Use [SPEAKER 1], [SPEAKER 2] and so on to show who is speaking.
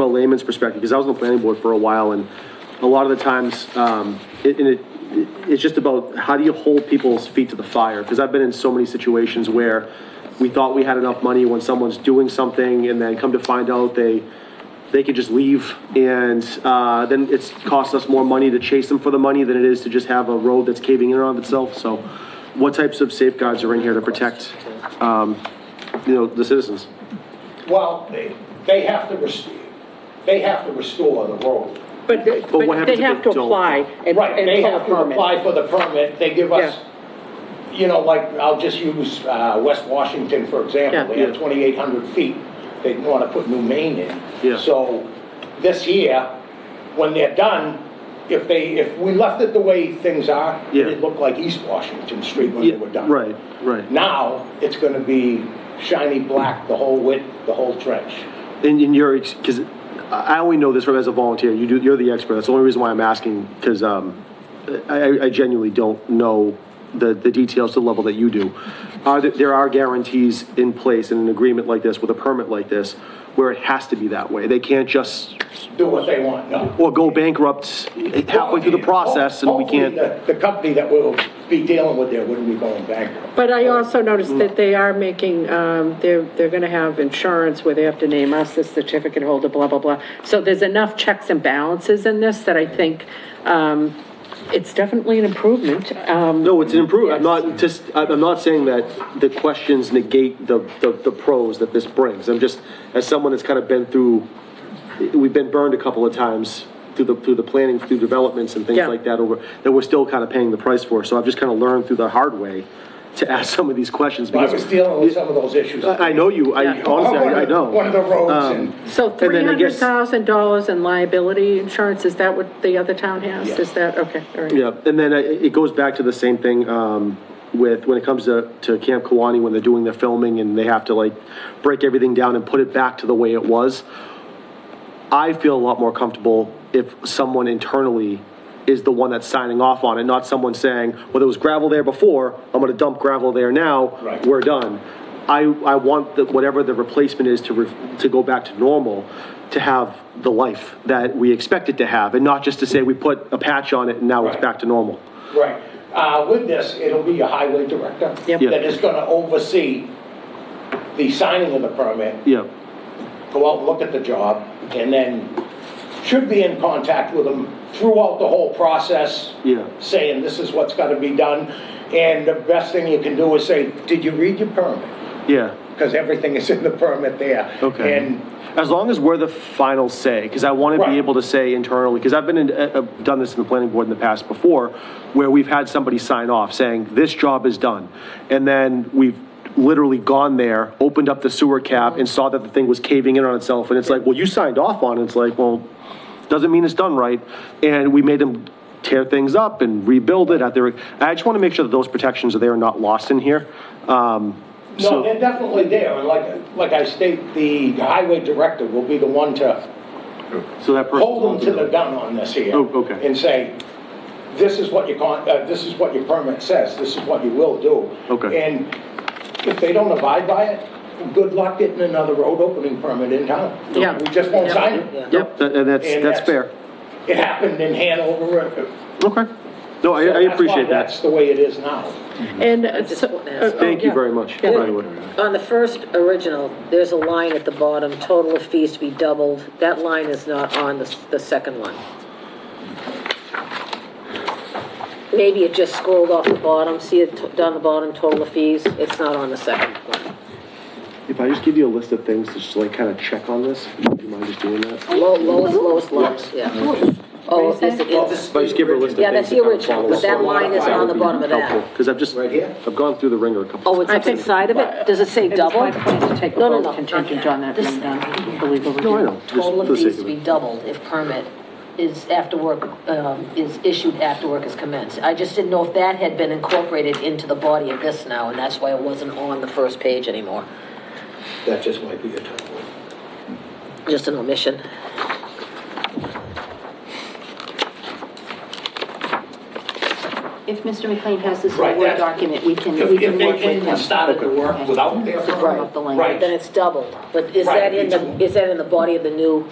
[SPEAKER 1] a layman's perspective, because I was on the planning board for a while, and a lot of the times, um, it, and it, it's just about how do you hold people's feet to the fire? Because I've been in so many situations where we thought we had enough money when someone's doing something, and then come to find out they, they could just leave, and, uh, then it's cost us more money to chase them for the money than it is to just have a road that's caving in on itself, so what types of safeguards are in here to protect, um, you know, the citizens?
[SPEAKER 2] Well, they, they have to restore, they have to restore the road.
[SPEAKER 3] But they-
[SPEAKER 1] what
[SPEAKER 3] but
[SPEAKER 1] happens
[SPEAKER 3] they
[SPEAKER 1] if
[SPEAKER 3] have
[SPEAKER 1] they
[SPEAKER 3] to
[SPEAKER 1] don't?
[SPEAKER 3] apply and
[SPEAKER 2] Right, they
[SPEAKER 3] and pull a
[SPEAKER 2] have to
[SPEAKER 3] permit.
[SPEAKER 2] apply for the permit, they give us, you know, like, I'll just use, uh, West Washington, for example, they
[SPEAKER 1] Yeah.
[SPEAKER 2] have twenty-eight hundred feet, they wanna put new main in.
[SPEAKER 1] Yeah.
[SPEAKER 2] So, this year, when they're done, if they, if we left it the way things are,
[SPEAKER 1] Yeah.
[SPEAKER 2] it'd look like East Washington Street when they were done.
[SPEAKER 1] Right, right.
[SPEAKER 2] Now, it's gonna be shiny black, the whole width, the whole trench.
[SPEAKER 1] In, in your, because I I only know this from as a volunteer, you do, you're the expert, that's the only reason why I'm asking, because, um, I, I- I genuinely don't know the, the details to the level that you do. Are, there- there are guarantees in place in an agreement like this, with a permit like this, where it has to be that way, they can't just,
[SPEAKER 2] do what they want, no.
[SPEAKER 1] or go bankrupt halfway through the process, and we can't.
[SPEAKER 2] Hopefully, The the company that we'll be dealing with there wouldn't be going bankrupt.
[SPEAKER 3] But I also noticed that they are making, um, they're, they're going to have insurance where they have to name us the certificate holder, blah, blah, blah. So there's enough checks and balances in this that I think um, it's definitely an improvement. Um,
[SPEAKER 1] No, it's an improvement. I'm not just, I- I'm not saying that the questions negate the, the, the pros that this brings. I'm just, as someone that's kind of been through, we've been burned a couple of times through the, through the planning, through developments and things
[SPEAKER 3] Yeah.
[SPEAKER 1] like that over, that we're still kind of paying the price for. So I've just kind of learned through the hard way to ask some of these questions
[SPEAKER 2] I
[SPEAKER 1] because.
[SPEAKER 2] was dealing with some of those issues.
[SPEAKER 1] I I know you, I
[SPEAKER 3] Yeah.
[SPEAKER 1] Uh, honestly,
[SPEAKER 2] One of
[SPEAKER 1] I I
[SPEAKER 2] the-
[SPEAKER 1] know.
[SPEAKER 2] One of the roads
[SPEAKER 1] Um,
[SPEAKER 2] and,
[SPEAKER 3] So
[SPEAKER 1] And then I guess-
[SPEAKER 3] $300,000 in liability insurance, is that what the other town has? Is that, okay, all right.
[SPEAKER 1] Yeah, and then it it goes back to the same thing um, with, when it comes to, to Camp Kawani, when they're doing their filming and they have to like break everything down and put it back to the way it was. I feel a lot more comfortable if someone internally is the one that's signing off on it, not someone saying, well, there was gravel there before, I'm gonna dump gravel there now,
[SPEAKER 2] Right.
[SPEAKER 1] we're done. I, I want that whatever the replacement is to, re- to go back to normal, to have the life that we expect it to have, and not just to say we put a patch on it and now it's
[SPEAKER 2] Right.
[SPEAKER 1] back to normal.
[SPEAKER 2] right. Uh, With this, it'll be a highway director
[SPEAKER 3] Yep.
[SPEAKER 1] Yeah.
[SPEAKER 2] that is going to oversee the signing of the permit,
[SPEAKER 1] Yeah,
[SPEAKER 2] go out and look at the job, and then should be in contact with them throughout the whole process.
[SPEAKER 1] Yeah.
[SPEAKER 2] Saying this is what's gotta be done, and the best thing you can do is say, did you read your permit?
[SPEAKER 1] yeah,
[SPEAKER 2] Because everything is in the permit there.
[SPEAKER 1] okay.
[SPEAKER 2] And,
[SPEAKER 1] As long as we're the final say, because I want to be
[SPEAKER 2] Right.
[SPEAKER 1] able to say internally, because I've been, in- uh, uh, done this in the planning board in the past before, where we've had somebody sign off saying, this job is done. And then we've literally gone there, opened up the sewer cap and saw that the thing was caving in on itself. And it's like, well, you signed off on it. It's like, well, doesn't mean it's done right. And we made them tear things up and rebuild it at their, I just want to make sure that those protections are there and not lost in here. Um,
[SPEAKER 2] no,
[SPEAKER 1] so-
[SPEAKER 2] they're definitely there, and like, like I state, the highway director will be the one to
[SPEAKER 1] So that person.
[SPEAKER 2] hold them to the gun on this here.
[SPEAKER 1] Oh, okay.
[SPEAKER 2] And say, this is what your con, uh, this is what your permit says, this is what you will do.
[SPEAKER 1] Okay.
[SPEAKER 2] And if they don't abide by it, good luck getting another road opening permit in town.
[SPEAKER 3] Yeah.
[SPEAKER 2] We just won't
[SPEAKER 3] Yeah.
[SPEAKER 2] sign it.
[SPEAKER 1] Yep, that- and that's,
[SPEAKER 2] And
[SPEAKER 1] that's fair.
[SPEAKER 2] It happened in Hanover. uh,
[SPEAKER 1] Okay. No, I,
[SPEAKER 2] so
[SPEAKER 1] I
[SPEAKER 2] that's why
[SPEAKER 1] appreciate that.
[SPEAKER 2] That's the way it is now.
[SPEAKER 3] And uh, so.
[SPEAKER 4] just want to ask-
[SPEAKER 3] uh, oh,
[SPEAKER 1] Thank you
[SPEAKER 3] yeah.
[SPEAKER 1] very much, by
[SPEAKER 4] Yeah.
[SPEAKER 1] the way.
[SPEAKER 4] On the first original, there's a line at the bottom, total of fees to be doubled. That line is not on the, the second one. Maybe it just scrolled off the bottom, see it t- down the bottom, total of fees? It's not on the second one.
[SPEAKER 1] If I just give you a list of things to just like kind of check on this, would you mind just doing that?
[SPEAKER 4] Low, lowest, lowest, lowest, yeah. Oh, is it, it's,
[SPEAKER 1] If I just give her a list of things.
[SPEAKER 4] yeah, that's the original, but that line is on the bottom of that.
[SPEAKER 1] Because I've just,
[SPEAKER 2] Right here?
[SPEAKER 1] I've gone through the ringer a couple.
[SPEAKER 4] Oh, it's
[SPEAKER 3] I
[SPEAKER 4] up
[SPEAKER 3] think-
[SPEAKER 4] inside of it? Does it say double?
[SPEAKER 5] My plan to take a
[SPEAKER 4] No, no, no.
[SPEAKER 5] vote contingent on that being done, the legal review.
[SPEAKER 1] No, I know, Oh, just
[SPEAKER 6] total
[SPEAKER 1] for
[SPEAKER 6] of
[SPEAKER 1] the sake
[SPEAKER 6] fees
[SPEAKER 1] of
[SPEAKER 6] to be
[SPEAKER 1] it.
[SPEAKER 6] doubled if permit is after work, um, is issued after work is commenced. I just didn't know if that had been incorporated into the body of this now, and that's why it wasn't on the first page anymore.
[SPEAKER 2] That just might be a tough one.
[SPEAKER 6] Just an omission.
[SPEAKER 5] If Mr. McLean has this in
[SPEAKER 2] Right,
[SPEAKER 5] a Word
[SPEAKER 2] that's-
[SPEAKER 5] document, we can,
[SPEAKER 2] If
[SPEAKER 5] we
[SPEAKER 2] if
[SPEAKER 5] can
[SPEAKER 2] they
[SPEAKER 5] work with
[SPEAKER 2] came
[SPEAKER 5] him.
[SPEAKER 2] and started the work without
[SPEAKER 5] To
[SPEAKER 2] their
[SPEAKER 5] firm up the language.
[SPEAKER 2] permit, right,
[SPEAKER 6] Then it's doubled, but is
[SPEAKER 2] Right,
[SPEAKER 6] that in
[SPEAKER 2] it's-
[SPEAKER 6] the, is that in the body of the new